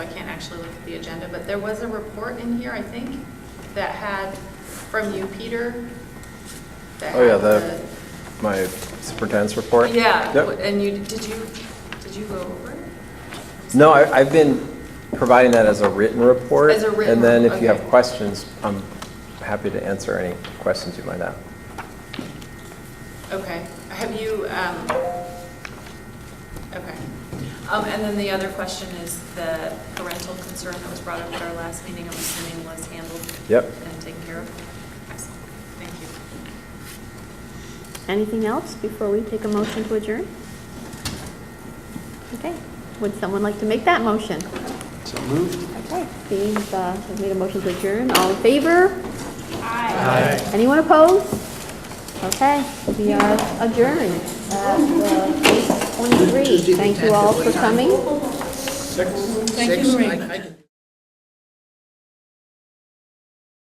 actually look at the agenda, but there was a report in here, I think, that had, from you, Peter, that Oh, yeah, had the, my superintendent's report? Yeah, Yep. and you, did you, did you go over it? No, I- I've been providing that as a written report. As a written And then report, if you have okay. questions, I'm happy to answer any questions you might have. Okay, have you, um, okay. Um, and then the other question is the parental concern that was brought up at our last meeting, I'm assuming was handled. Yep. And taken care of. Excellent. Thank you. Anything else before we take a motion to adjourn? Okay, would someone like to make that motion? So moved. Okay, Steve uh, has made a motion to adjourn, all in favor? Aye. Anyone opposed? Okay, we are adjourned at uh, 8:23. Thank you all for coming. Thank you, Marie.